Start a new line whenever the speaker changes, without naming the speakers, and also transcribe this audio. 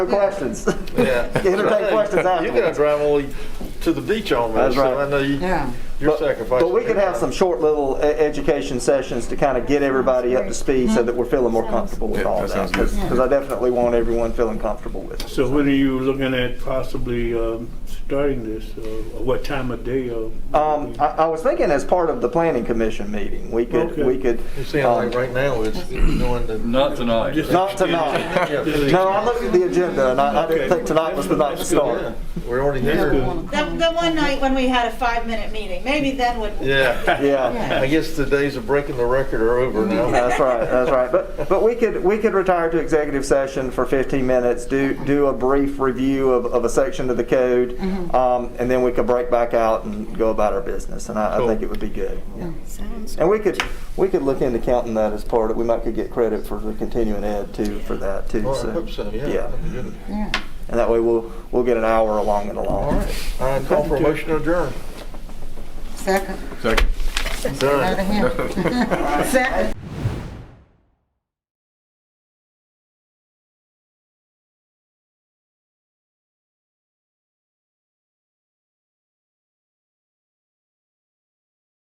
No questions.
Yeah.
Entertain questions
You're gonna
afterwards.
drive only to the beach
That's
almost, so
right.
I know you,
Yeah.
you're sacrificing.
But we could have some short little e- education sessions to kind of get everybody up to speed so that we're feeling more comfortable with
Yeah,
all
that
of that.
sounds good.
Because I definitely want everyone feeling comfortable with it.
So when are you looking at possibly um, starting this? Uh, What time of day? uh,
Um, I, I was thinking as part of the planning commission meeting, we could,
Okay.
we could.
You see, how, like
um,
right now, it's doing the.
Not tonight.
Just-
Not tonight.
Yeah.
No, I looked at the agenda and I, I didn't
Okay.
think tonight was the night to
Yeah,
start.
We're already
Yeah.
here.
That, that one night when we had a five-minute meeting, maybe then would.
Yeah.
Yeah.
I guess the days of breaking the record are over now.
That's right, that's right. But, but we could, we could retire to executive session for 15 minutes, do, do a brief review of, of a section of the code, um, and then we could break back out and go about our business, and I, I think it would be good. yeah.
Sounds
And we could, we could look into counting that as part of, we might could get credit for the continuing ed too, for that too.
Well, I hope so, yeah. that'd be good.
Yeah.
And that way we'll, we'll get an hour along and
All
along.
right, I call for a motion to adjourn.
Second.
Second.
Out of here. Second.